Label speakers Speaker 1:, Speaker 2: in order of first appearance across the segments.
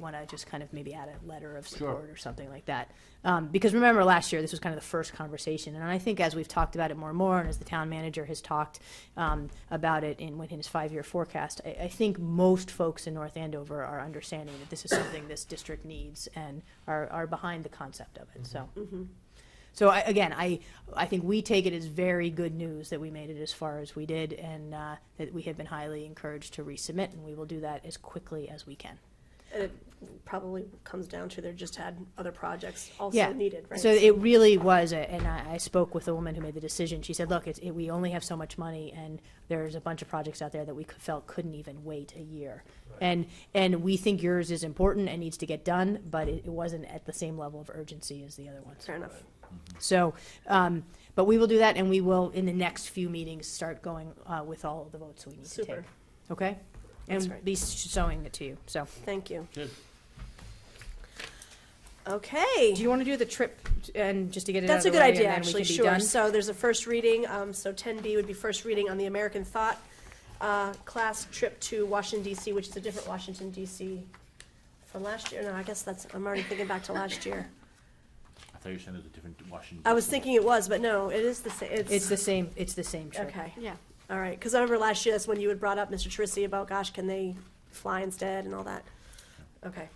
Speaker 1: want to just kind of maybe add a letter of support or something like that. Um, because remember last year, this was kind of the first conversation, and I think as we've talked about it more and more, and as the town manager has talked um, about it in, in his five-year forecast, I, I think most folks in North Andover are understanding that this is something this district needs and are, are behind the concept of it,
Speaker 2: Mm-hmm.
Speaker 1: so. So I, again, I, I think we take it as very good news that we made it as far as we did, and uh, that we have been highly encouraged to resubmit, and we will do that as quickly as we can.
Speaker 2: And it probably comes down to they just had other projects
Speaker 1: Yeah.
Speaker 2: also needed, right?
Speaker 1: So it really was, a- and I, I spoke with the woman who made the decision. She said, "Look, it's, it, we only have so much money, and there's a bunch of projects out there that we c- felt couldn't even wait a year, and and we think yours is important and needs to get done, but it, it wasn't at the same level of urgency as the other ones."
Speaker 2: Fair enough.
Speaker 1: So, um, but we will do that, and we will, in the next few meetings, start going, uh, with all of the votes we need to take.
Speaker 2: Super.
Speaker 1: Okay?
Speaker 2: That's
Speaker 1: And
Speaker 2: right.
Speaker 1: be showing it to you, so.
Speaker 2: Thank you.
Speaker 3: Good.
Speaker 1: Do
Speaker 2: Okay.
Speaker 1: you wanna do the trip, and just to get it out of
Speaker 2: That's
Speaker 1: the
Speaker 2: a good
Speaker 1: way,
Speaker 2: idea,
Speaker 1: and then we
Speaker 2: actually,
Speaker 1: can be
Speaker 2: sure.
Speaker 1: done?
Speaker 2: So there's a first reading, um, so ten B would be first reading on the American Thought, uh, class trip to Washington DC, which is a different Washington DC from last year. No, I guess that's, I'm already thinking back to last year.
Speaker 3: I thought you said it was a different Washington.
Speaker 2: I was thinking it was, but no, it is the same,
Speaker 1: It's
Speaker 2: it's,
Speaker 1: the same, it's the same trip.
Speaker 2: okay.
Speaker 4: Yeah.
Speaker 2: All right, because I remember last year, that's when you had brought up Mr. Trissy about, gosh, can they fly instead and all that? Okay.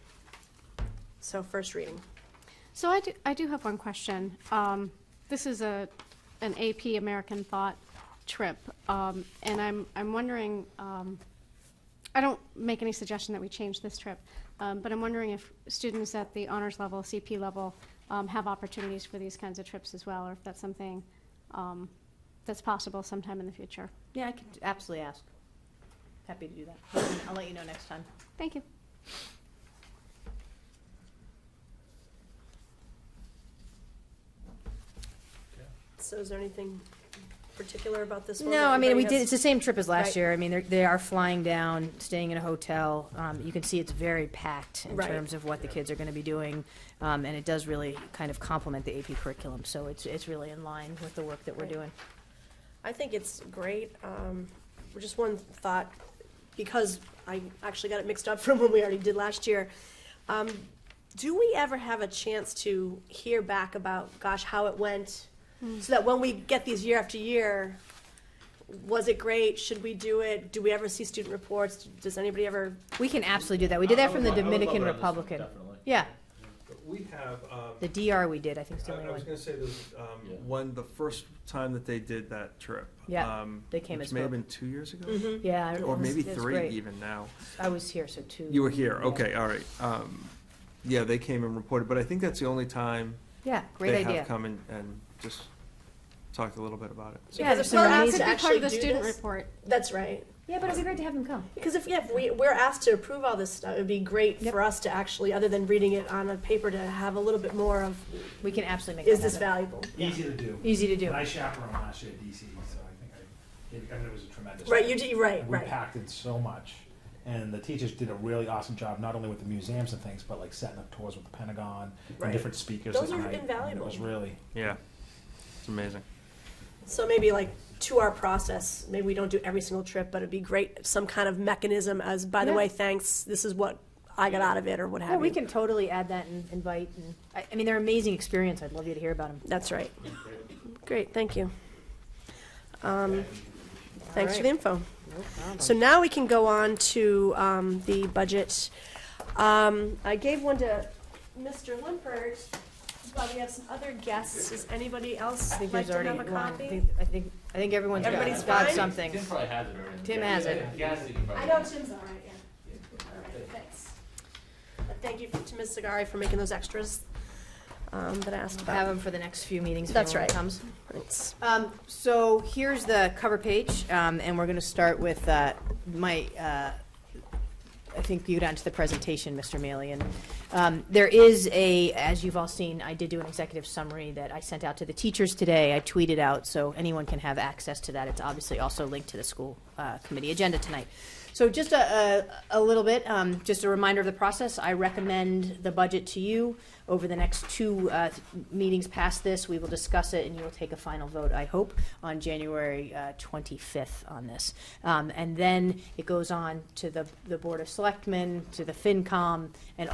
Speaker 2: So first reading.
Speaker 4: So I do, I do have one question. Um, this is a, an AP American Thought trip, um, and I'm, I'm wondering, um, I don't make any suggestion that we change this trip, um, but I'm wondering if students at the honors level, CP level, um, have opportunities for these kinds of trips as well, or if that's something, um, that's possible sometime in the future.
Speaker 1: Yeah, I can absolutely ask. Happy to do that. I'll let you know next time.
Speaker 4: Thank you.
Speaker 2: So is there anything particular about this one?
Speaker 1: No,
Speaker 2: that
Speaker 1: I mean, we
Speaker 2: everybody
Speaker 1: did, it's the same trip as last
Speaker 2: Right.
Speaker 1: year. I mean, they're, they are flying down, staying in a hotel. Um, you can see it's very packed in
Speaker 2: Right.
Speaker 1: terms of what the kids are gonna be doing. Um, and it does really kind of complement the AP curriculum, so it's, it's really in line with the work that we're
Speaker 2: Right.
Speaker 1: doing.
Speaker 2: has- I think it's great. Um, Just one thought, because I actually got it mixed up from when we already did last year. Um, Do we ever have a chance to hear back about, gosh, how it went?
Speaker 4: Hmm.
Speaker 2: So that when we get these year after year, was it great? Should we do it? Do we ever see student reports? Does anybody ever?
Speaker 1: We can absolutely do that. We did that from the Dominican Republican. Yeah,
Speaker 5: But We have, um,
Speaker 1: the DR we did, I think is the
Speaker 5: I
Speaker 1: only
Speaker 5: I was
Speaker 1: one.
Speaker 5: gonna say there's,
Speaker 3: Yeah.
Speaker 5: um, one, the first time that they did that trip.
Speaker 1: Yeah,
Speaker 5: um,
Speaker 1: they came and
Speaker 5: Which may have
Speaker 1: spoke.
Speaker 5: been two years ago?
Speaker 1: Yeah. I-
Speaker 5: Or
Speaker 1: it was-
Speaker 5: maybe
Speaker 1: it was
Speaker 5: three
Speaker 1: great.
Speaker 5: even now.
Speaker 1: I was here, so two.
Speaker 5: You were here,
Speaker 1: Yeah.
Speaker 5: okay, all right. Um, yeah, they came and reported, but I think that's the only time
Speaker 1: Yeah, great
Speaker 5: they
Speaker 1: idea.
Speaker 5: have come and, and just talked a little bit about it.
Speaker 1: Yeah,
Speaker 2: Because if
Speaker 1: so
Speaker 2: we're
Speaker 1: we
Speaker 4: Well,
Speaker 1: need
Speaker 2: asked
Speaker 4: it could
Speaker 2: to
Speaker 4: be part
Speaker 2: actually
Speaker 4: of the
Speaker 2: do
Speaker 4: student
Speaker 2: this-
Speaker 4: report.
Speaker 2: That's right.
Speaker 1: Yeah, but it'd be great to have them come.
Speaker 2: Because if, yeah, if we, we're asked to approve all this stuff, it'd be great
Speaker 1: Yep.
Speaker 2: for us to actually, other than reading it on a paper, to have a little bit more of,
Speaker 1: We can absolutely make
Speaker 2: is
Speaker 1: that
Speaker 2: this
Speaker 1: happen.
Speaker 2: valuable?
Speaker 6: Easy to do.
Speaker 1: Easy to do.
Speaker 6: And I chaperoned last year at DC, so I think I, it- I mean, it was a tremendous.
Speaker 2: Right, you did, right,
Speaker 6: And We
Speaker 2: right.
Speaker 6: packed in so much, and the teachers did a really awesome job, not only with the museums and things, but like setting up tours with the Pentagon
Speaker 2: Right.
Speaker 6: and different speakers.
Speaker 2: Those
Speaker 6: at
Speaker 2: are
Speaker 6: night. I mean,
Speaker 2: invaluable.
Speaker 6: It was really.
Speaker 5: Yeah, it's amazing.
Speaker 2: So maybe like to our process, maybe we don't do every single trip, but it'd be great, if some kind of mechanism as, by the
Speaker 1: Yeah.
Speaker 2: way, thanks, this is what I got out of it, or what
Speaker 1: Yeah,
Speaker 2: have
Speaker 1: we
Speaker 2: you.
Speaker 1: can totally add that and invite, and, I, I mean, they're amazing experience, I'd love you to hear about them.
Speaker 2: That's right. Great, thank you. Um, Thanks for the info. So now we can go on to um, the budget. Um, I gave one to Mr. Limpert, but we have some other guests. Does anybody else
Speaker 1: I think
Speaker 2: like
Speaker 1: there's
Speaker 2: to
Speaker 1: already
Speaker 2: have a
Speaker 1: one, I
Speaker 2: copy?
Speaker 1: think, I think, I think everyone's got
Speaker 2: Everybody's
Speaker 1: got
Speaker 2: fine?
Speaker 1: something.
Speaker 3: probably has it already.
Speaker 1: Tim has it.
Speaker 2: I know Tim's all right, yeah. All right, thanks. But thank you to Ms. Sagari for making those extras um, that I asked
Speaker 1: Have
Speaker 2: about.
Speaker 1: them for the next few meetings if
Speaker 2: That's
Speaker 1: anyone
Speaker 2: right.
Speaker 1: comes.
Speaker 2: Thanks.
Speaker 1: Um, so here's the cover page, um, and we're gonna start with, uh, my, uh, I think you got into the presentation, Mr. Mealy, and, um, there is a, as you've all seen, I did do an executive summary that I sent out to the teachers today, I tweeted out, so anyone can have access to that, it's obviously also linked to the school, uh, committee agenda tonight. So just a, a, a little bit, um, just a reminder of the process, I recommend the budget to you. Over the next two, uh, th- meetings past this, we will discuss it and you will take a final vote, I hope, on January, uh, twenty-fifth on this. Um, and then it goes on to the, the Board of Selectmen, to the FinCom, and